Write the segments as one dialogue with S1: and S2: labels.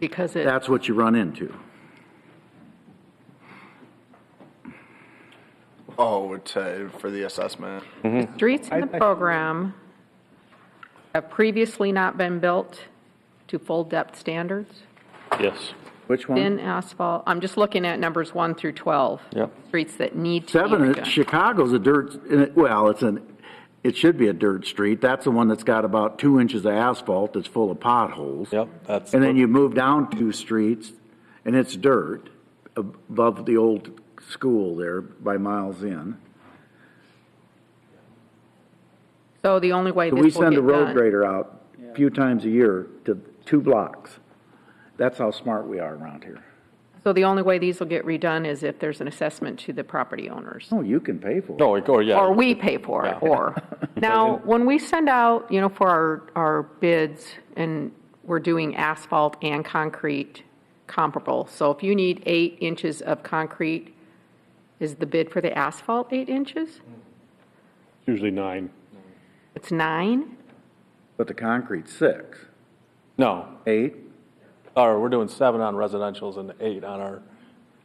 S1: because it,
S2: That's what you run into.
S3: Oh, would say for the assessment.
S1: streets in the program have previously not been built to full depth standards,
S4: Yes.
S2: Which one?
S1: thin asphalt, I'm just looking at numbers one through 12.
S4: Yep.
S1: Streets that need to be
S2: Seven,
S1: redone.
S2: is- Chicago's a dirt, well, it's an, it should be a dirt street. That's the one that's got about two inches of asphalt that's full of potholes.
S4: Yep, that's
S2: And then
S4: what-
S2: you move down two streets and it's dirt above the old school there by Miles Inn.
S1: So the only way
S2: So we
S1: this will
S2: send a
S1: get
S2: road
S1: done.
S2: grader out a few times a year to two blocks. That's how smart we are around here.
S1: So the only way these will get redone is if there's an assessment to the property owners.
S2: Oh, you can pay for it.
S4: No, like, oh, yeah.
S1: Or we pay for it,
S4: Yeah.
S1: or. Now, when we send out, you know, for our, our bids, and we're doing asphalt and concrete comparable, so if you need eight inches of concrete, is the bid for the asphalt eight inches?
S5: Usually nine.
S1: It's nine?
S2: But the concrete's six,
S4: No,
S2: eight,
S4: or we're doing seven on residential's and eight on our,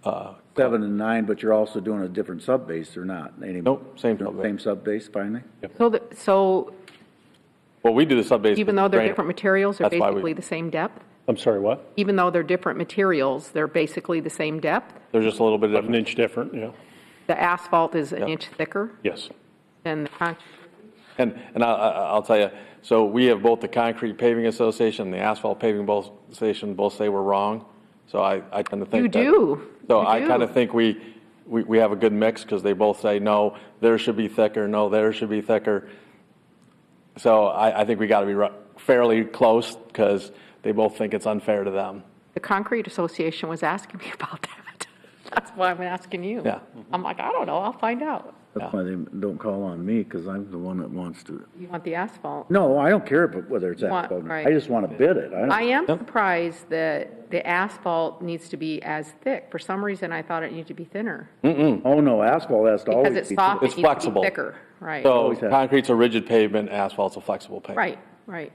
S4: uh,
S2: seven and nine, but you're also doing a different subbase or not anymore?
S4: Nope, same subbase.
S2: Same subbase finally?
S1: So, the- so
S4: well, we do the sub-base.
S1: even though they're
S4: drain-
S1: different materials, they're
S4: That's why we-
S1: basically the same depth?
S5: I'm sorry, what?
S1: Even though they're different materials, they're basically the same depth?
S4: They're just a little bit
S5: An
S4: different.
S5: inch different, yeah.
S1: The asphalt is an
S4: Yeah.
S1: inch thicker
S5: Yes.
S1: than the concrete?
S4: And, and I, I, I'll tell you, so we have both the Concrete Paving Association and the Asphalt Paving Both Association both say we're wrong. So I, I tend to think.
S1: You
S4: that-
S1: do.
S4: So
S1: You
S4: I
S1: do.
S4: kind of think we, we, we have a good mix because they both say, no, there should be thicker, no, there should be thicker. So I, I think we got to be ru- fairly close because they both think it's unfair to them.
S1: The Concrete Association was asking me about that. That's why I'm asking you.
S4: Yeah.
S1: I'm like, I don't know, I'll find out.
S2: That's why they don't call on me, because I'm the one that wants to.
S1: You want the asphalt?
S2: No, I don't care about whether it's
S1: Want-
S2: asphalt or not.
S1: right.
S2: I just want to bid it. I
S1: I
S2: don't,
S1: am surprised that the asphalt needs to be as thick. For some reason, I thought it needed to be thinner.
S2: oh no, asphalt has to always
S1: Because
S2: be.
S1: it's soft,
S4: It's
S1: it needs to be
S4: flexible.
S1: thicker. Right,
S4: So
S2: Always have.
S4: concrete's a rigid pavement, asphalt's a flexible pavement.
S1: right, right.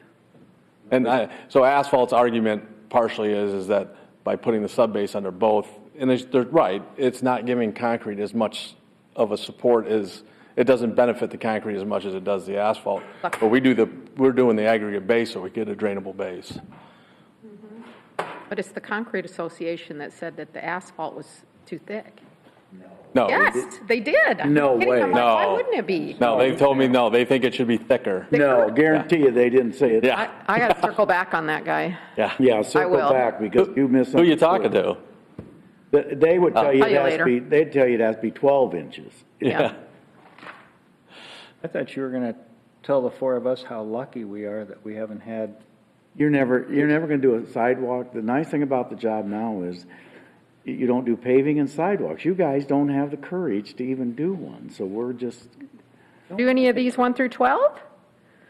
S4: And I, so asphalt's argument partially is, is that by putting the subbase under both, and they're, they're right, it's not giving concrete as much of a support as, it doesn't benefit the concrete as much as it does the asphalt. But we do the, we're doing the aggregate base, so we get a drainable base.
S1: But it's the Concrete Association that said that the asphalt was too thick.
S4: No.
S1: Yes, they did. I'm
S2: No
S1: kidding. I'm
S2: way.
S1: like, Why
S4: Oh, No.
S1: wouldn't it be?
S4: No, they told me, no, they think it should be thicker.
S2: No, guarantee you, they didn't say it.
S1: I,
S4: Yeah,
S1: I gotta circle back on that guy.
S4: yeah.
S2: Yeah, circle
S1: will.
S2: back, because you missed.
S4: Who you talking to? Uh,
S2: They would tell you
S1: Tell
S2: it
S1: you
S2: has to
S1: later.
S2: be, they'd tell you it has to be twelve inches.
S1: Yeah.
S6: I thought you were going to tell the four of us how lucky we are that we haven't had,
S2: You're never, you're never gonna do a sidewalk. The nice thing about the job now is you- you don't do paving and sidewalks. You guys don't have the courage to even do one, so we're just,
S1: Do any of these one through 12?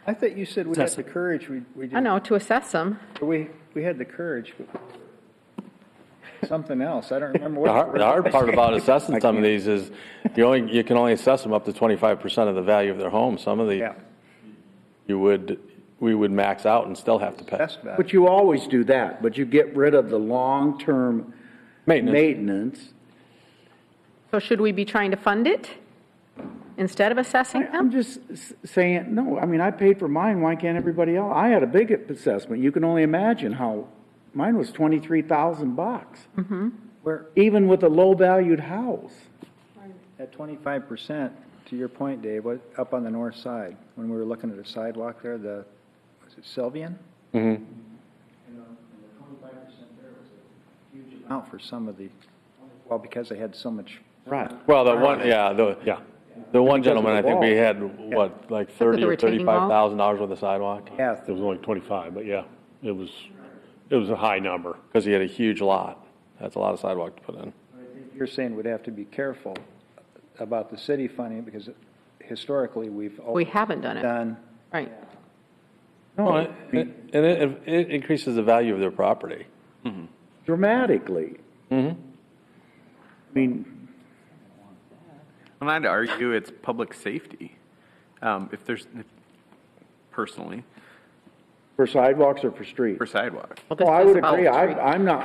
S6: I thought you said we had the courage, we, we
S1: I
S6: didn't.
S1: know, to assess them.
S6: We, we had the courage, but something else, I don't remember what.
S4: The hard, the hard part about assessing some of these is you only, you can only assess them up to twenty-five percent of the value of their home. Some of the,
S6: Yeah,
S4: you would, we would max out and still have to pay.
S6: that's bad.
S2: but you always do that, but you get rid of the long-term
S4: Maintenance,
S2: maintenance.
S1: So should we be trying to fund it instead of assessing
S2: I- I'm
S1: them?
S2: just s- saying, no, I mean, I paid for mine, why can't everybody else? I had a big assessment, you can only imagine how, mine was twenty-three thousand bucks.
S6: We're
S2: Even with a low-valued house.
S6: at twenty-five percent, to your point, Dave, what, up on the north side, when we were looking at the sidewalk there, the, was it Sylvian? Mm-hmm. And the twenty-five percent there was a huge amount for some of the, well, because they had so much
S2: Right.
S4: well, the one, yeah, the,
S5: Yeah.
S4: the one gentleman, I
S2: the
S4: think we
S2: wall.
S4: had, what, like
S1: the
S4: thirty or
S1: retaining wall.
S4: thirty-five thousand dollars worth of sidewalk?
S6: path
S5: It was only 25, but yeah, it was, it was a high number.
S4: Because he had a huge lot. That's a lot of sidewalk to put in.
S6: You're saying we'd have to be careful about the city funding because historically, we've.
S1: We
S6: always
S1: haven't done it,
S6: Done,
S1: right?
S4: Well, it- it- And it, it increases the value of their property.
S2: dramatically. I mean,
S7: And I'd argue it's public safety. Um, if there's, if- personally,
S2: For sidewalks or for streets?
S7: for sidewalks.
S1: Well, this
S2: Well, I
S1: is
S2: would
S1: about
S2: agree.
S1: street.
S2: I, I'm not,